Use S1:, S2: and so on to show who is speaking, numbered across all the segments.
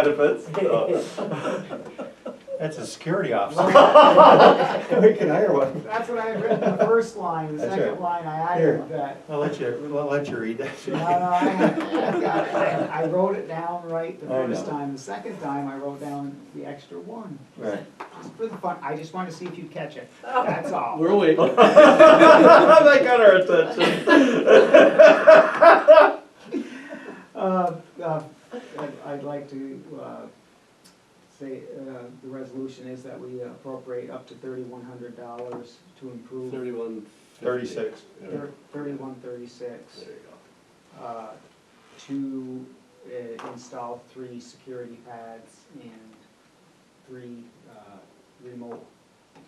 S1: benefits. so.
S2: That's a security officer.
S3: We can hire one.
S4: That's what I had written, the first line, the
S3: That's
S4: second
S3: right.
S4: line, I
S3: Here.
S4: added that.
S2: I'll let you, I'll let you read
S4: No, no,
S2: that.
S4: I, I've got it. I I wrote it down right the
S3: Oh,
S4: first
S3: no.
S4: time, the second time I wrote down the extra one,
S3: Right.
S4: just for the fun, I just wanted to see if you'd catch it, that's all.
S5: We're awake.
S1: That got our attention.
S4: Uh, uh, I'd- I'd like to, uh, say, uh, the resolution is that we appropriate up to thirty-one hundred dollars to improve
S5: Thirty-one. fifty.
S2: Thirty-six.
S5: Yeah.
S4: thirty-one thirty-six.
S5: There you go.
S4: uh, to uh, install three security pads and three uh, remote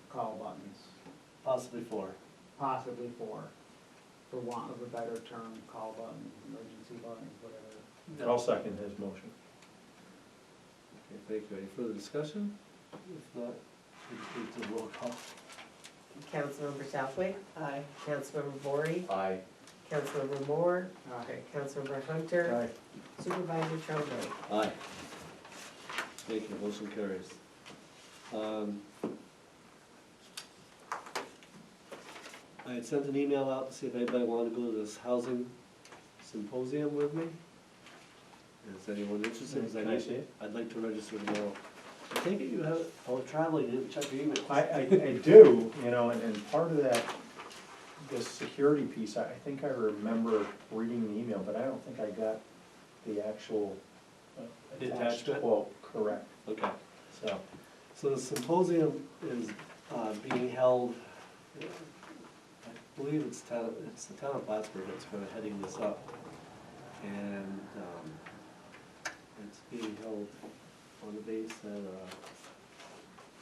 S4: call buttons,
S5: Possibly four.
S4: possibly four, for want of a better term, call button, emergency button, whatever.
S2: I'll second his motion.
S5: Okay, thank you. Any further discussion? If not, we can do the roll call.
S6: Councilmember Southwick,
S4: Aye.
S6: Councilmember Bory,
S1: Aye.
S6: Councilmember Moore,
S4: Aye.
S6: Councilmember Hunter, Supervisor Trombley.
S5: Aye. Thank you, motion carries. Um, I had sent an email out to see if anybody wanted to go to this housing symposium with me. Is anyone interested? 'Cause I'd
S2: Can I
S5: like-
S2: see it?
S5: I'd like to register tomorrow. I take it you have, oh, traveling, you didn't check your email.
S2: I, I, I do, you know, and, and part of that, this security piece, I, I think I remember reading the email, but I don't think I got the actual uh, attached
S5: Detachment?
S2: quote correct,
S5: Okay.
S2: so.
S5: So the symposium is uh, being held, I believe it's town, it's the town of Plattsburgh that's kind of heading this up. And um, it's being held on the base at, uh,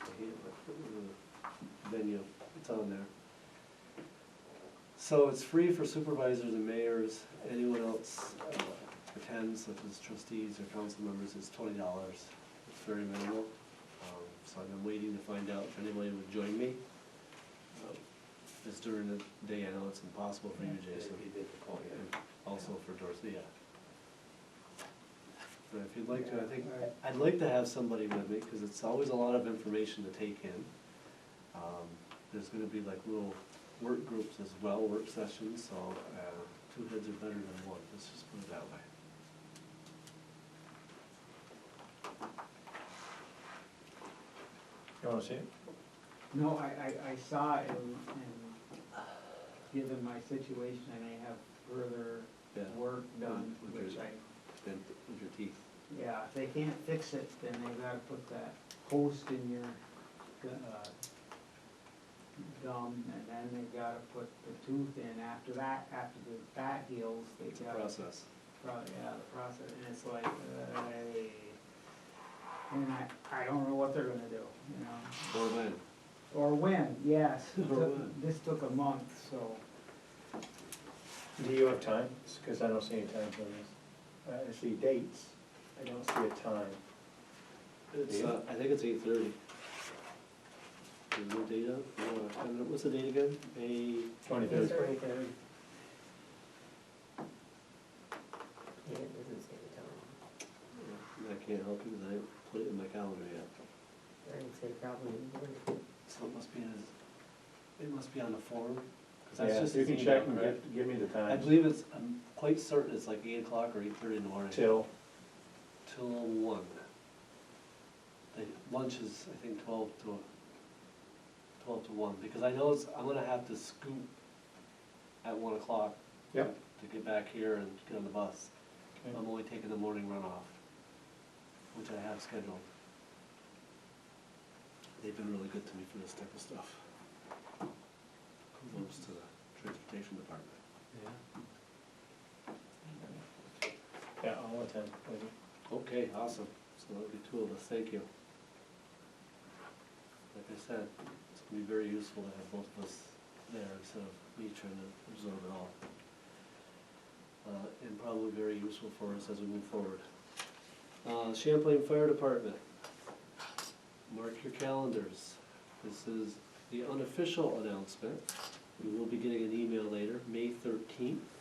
S5: I can't remember the venue, it's on there. So it's free for supervisors and mayors, anyone else uh, attends, such as trustees or council members, it's twenty dollars. It's very minimal. Um, So I've been waiting to find out if anybody would join me. Um, It's during the day, I know it's impossible for you, Jason, and also for Dorothea. But if you'd like to, I think, I'd like to have somebody with me, because it's always a lot of information to take in. Um, There's gonna be like little work groups as well, work sessions, so uh, two heads are better than one, let's just put it that way.
S2: You wanna see it?
S4: No, I, I, I saw it and, and given my situation, I may have further
S5: Yeah,
S4: work done, which I
S5: and with your teeth.
S4: Yeah, if they can't fix it, then they've gotta put that post in your, uh, gum, and then they've gotta put the tooth in, after that, after the, that heals, they
S5: It's a
S4: gotta.
S5: process.
S4: pro- yeah, the process, and it's like, uh, and I, I don't know what they're gonna do, you know,
S5: Or when.
S4: or when, yes, it
S5: Or
S4: took-
S5: when.
S4: this took a month, so.
S2: Do you have time? Because I don't see any time for this. Uh, I see dates, I don't see a time.
S5: It's,
S2: Yeah.
S5: uh, I think it's eight thirty. There's no date up, no, I don't know, uh, what's the date again? May,
S2: Twenty-third.
S6: Twenty-third. Yeah, it doesn't say the time.
S5: I can't help you, 'cause I didn't put it in my calendar yet.
S6: I didn't say probably.
S5: So it must be, in his- it must be on the form, 'cause that's
S2: Yeah,
S5: just
S2: you
S5: his
S2: can check and
S5: email, right?
S2: give, give me the
S5: I
S2: time
S5: believe it's, I'm quite certain it's like eight o'clock or eight thirty in the morning.
S2: till,
S5: Till one. The lunch is, I think, twelve to, twelve to one, because I know it's, I'm gonna have to scoop at one o'clock.
S2: Yep.
S5: To get back here and get on the bus.
S2: Okay.
S5: I'm only taking the morning runoff, which I have scheduled. They've been really good to me for this type of stuff. Kudos to the transportation department.
S2: yeah, I'll attend. maybe.
S5: Okay, awesome. So that'll be two of us, thank you. Like I said, it's gonna be very useful to have both of us there instead of me trying to absorb it all. Uh, and probably very useful for us as we move forward. Uh, Champlain Fire Department. Mark your calendars. This is the unofficial announcement. We will be getting an email later, May thirteenth.